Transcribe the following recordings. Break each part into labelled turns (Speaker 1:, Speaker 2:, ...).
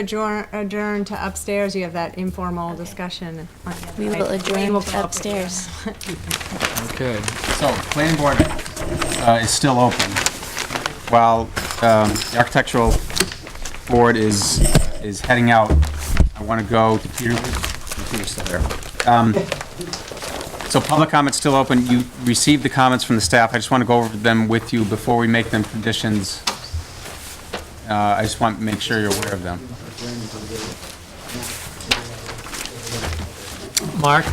Speaker 1: Adjourn, adjourn to upstairs, you have that informal discussion. on the other
Speaker 2: We
Speaker 1: night.
Speaker 2: will adjourn
Speaker 1: will
Speaker 2: to
Speaker 1: come up with
Speaker 2: upstairs.
Speaker 3: Okay,
Speaker 4: So, planning board uh, is still open, while um, the architectural board is, is heading out. I want to go to Peter, Peter's still there. Um, So, public comment's still open, you received the comments from the staff, I just want to go over them with you before we make them conditions. Uh, I just want to make sure you're aware of them.
Speaker 5: Mark,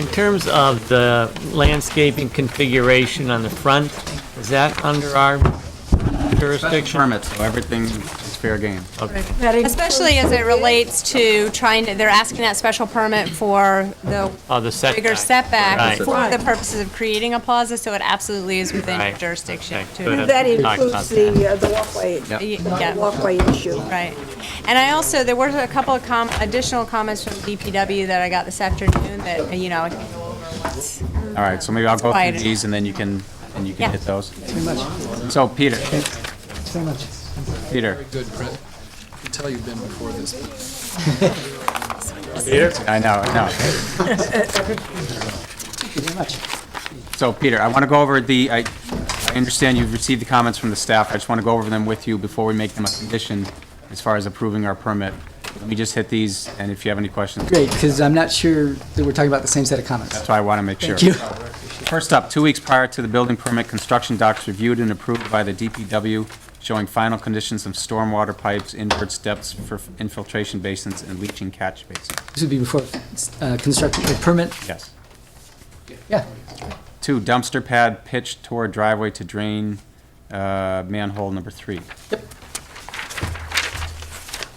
Speaker 5: in terms of the landscaping configuration on the front, is that under our jurisdiction?
Speaker 4: Permits, so everything is fair game.
Speaker 5: Okay.
Speaker 1: Especially as it relates to trying to, they're asking that special permit for the
Speaker 5: Oh, the setback.
Speaker 1: bigger setback
Speaker 5: Right.
Speaker 1: for the purposes of creating a plaza, so it absolutely is within
Speaker 5: Right.
Speaker 1: jurisdiction.
Speaker 5: Okay,
Speaker 1: to-
Speaker 5: good.
Speaker 6: That
Speaker 5: Talked about
Speaker 6: includes the, uh, the walkway,
Speaker 4: Yep.
Speaker 1: Y- Yeah,
Speaker 6: walkway issue.
Speaker 1: right. And I also, there were a couple of com, additional comments from DPW that I got this afternoon that, you know, I can go over once.
Speaker 4: All right, so maybe I'll go
Speaker 1: Quieter.
Speaker 4: through these and then you can, and you
Speaker 1: Yeah.
Speaker 4: can hit those. So Peter,
Speaker 7: So much.
Speaker 4: Peter,
Speaker 3: good, Brett. I can tell you've been before this.
Speaker 4: I know, I know.
Speaker 7: Very much.
Speaker 4: So Peter, I want to go over the, I, I understand you've received the comments from the staff. I just want to go over them with you before we make them a condition as far as approving our permit. Let me just hit these and if you have any questions,
Speaker 7: Great, because I'm not sure that we're talking about the same set of comments.
Speaker 4: that's why I want to make sure.
Speaker 7: Thank you.
Speaker 4: First up, two weeks prior to the building permit, construction docs reviewed and approved by the DPW showing final conditions of stormwater pipes, invert steps for infiltration basins and leaching catch basins.
Speaker 7: This would be before uh, construction or permit.
Speaker 4: Yes.
Speaker 7: Yeah,
Speaker 4: Two, dumpster pad pitched toward driveway to drain uh, manhole number three.
Speaker 7: Yep.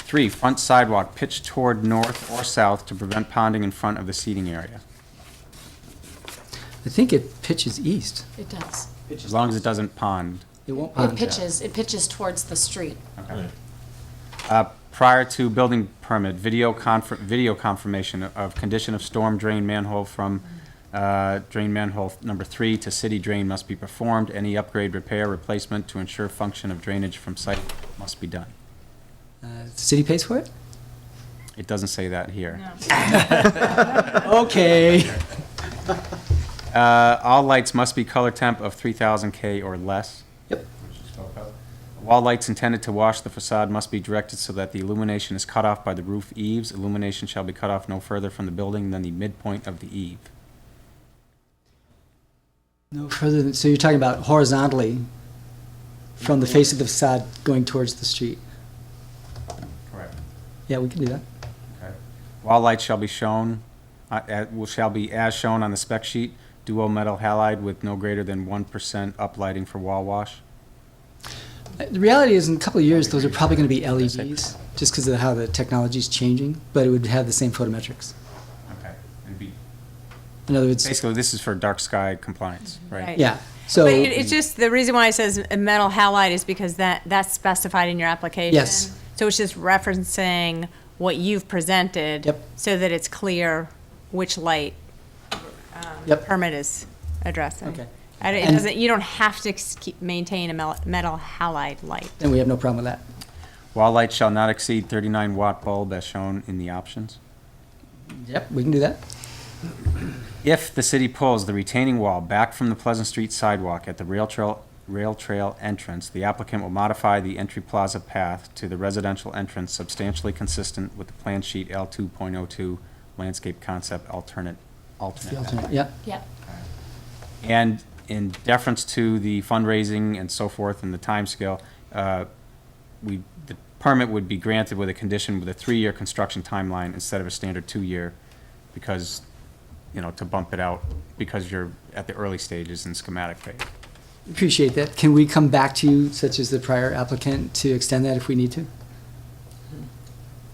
Speaker 4: Three, front sidewalk pitched toward north or south to prevent ponding in front of the seating area.
Speaker 7: I think it pitches east. Um,
Speaker 8: It does.
Speaker 4: As long as it doesn't pond.
Speaker 7: It won't pond.
Speaker 8: It pitches, it pitches towards the street.
Speaker 4: Uh, Prior to building permit, video confer, video confirmation of condition of storm drain manhole from uh, drain manhole number three to city drain must be performed. Any upgrade, repair, replacement to ensure function of drainage from site must be done.
Speaker 7: Uh, City pays for it?
Speaker 4: It doesn't say that here.
Speaker 7: Okay.
Speaker 4: Uh, all lights must be color temp of three thousand K or less.
Speaker 7: Yep.
Speaker 4: Wall lights intended to wash the facade must be directed so that the illumination is cut off by the roof eaves. Illumination shall be cut off no further from the building than the midpoint of the eave.
Speaker 7: No further than, so you're talking about horizontally from the face of the facade going towards the street.
Speaker 4: Correct.
Speaker 7: Yeah, we can do that.
Speaker 4: Okay. Wall lights shall be shown, uh, at- will- shall be as shown on the spec sheet, duo metal halide with no greater than one percent uplighting for wall wash.
Speaker 7: Uh, The reality is, in a couple of years, those are probably going to be LEDs, just because of how the technology's changing, but it would have the same photometrics.
Speaker 4: Okay. It'd be-
Speaker 7: In other words,
Speaker 4: Basically, this is for dark sky compliance, right?
Speaker 1: Right.
Speaker 7: yeah, so.
Speaker 1: But it- it's just, the reason why it says a metal halide is because that, that's specified in your application.
Speaker 7: Yes.
Speaker 1: So it's just referencing what you've presented.
Speaker 7: Yep.
Speaker 1: So that it's clear which light um, the
Speaker 7: Yep.
Speaker 1: permit is addressing.
Speaker 7: Okay.
Speaker 1: And it
Speaker 7: And-
Speaker 1: doesn't, you don't have to s- keep, maintain a mel- metal halide light.
Speaker 7: And we have no problem with that.
Speaker 4: Wall light shall not exceed thirty-nine watt bulb as shown in the options.
Speaker 7: Yep, we can do that.
Speaker 4: If the city pulls the retaining wall back from the Pleasant Street sidewalk at the rail trail, rail trail entrance, the applicant will modify the entry plaza path to the residential entrance substantially consistent with the plan sheet L two point oh two landscape concept alternate,
Speaker 7: The
Speaker 4: alternate. path.
Speaker 7: alternate, yeah.
Speaker 8: Yeah.
Speaker 4: And in deference to the fundraising and so forth and the timescale, uh, we, the permit would be granted with a condition with a three-year construction timeline instead of a standard two-year, because, you know, to bump it out, because you're at the early stages in schematic phase.
Speaker 7: Appreciate that. Can we come back to you, such as the prior applicant, to extend that if we need to?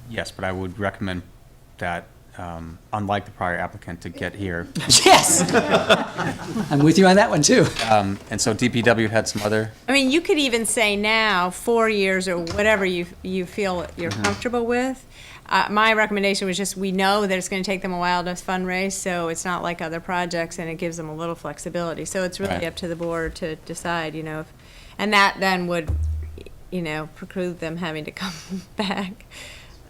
Speaker 4: Yes, but I would recommend that, um, unlike the prior applicant, to get here.
Speaker 7: Yes! I'm with you on that one, too.
Speaker 4: Um, And so DPW had some other
Speaker 1: I mean, you could even say now, four years or whatever you, you feel you're comfortable with. Uh, my recommendation was just, we know that it's gonna take them a while to fundraise, so it's not like other projects, and it gives them a little flexibility. So it's
Speaker 4: Right.
Speaker 1: really up to the board to decide, you know, if- and that then would, you know, preclude them having to come back